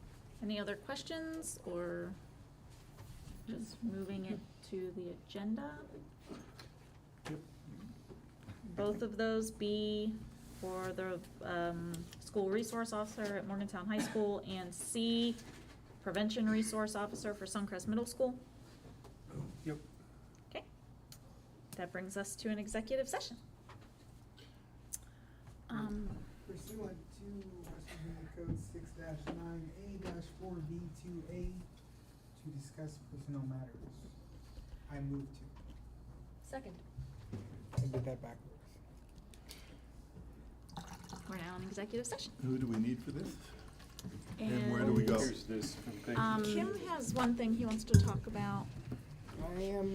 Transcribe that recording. Any other questions or just moving it to the agenda? Both of those be for the um, school resource officer at Morgantown High School and C, prevention resource officer for Suncrest Middle School. Yep. Okay. That brings us to an executive session. Um, Pursuant to West Virginia Code six nine A four B two A to discuss personnel matters. I move to. Second. I did that backwards. we're now in executive session. Who do we need for this? And where do we go? Here's this. Um, Kim has one thing he wants to talk about. I am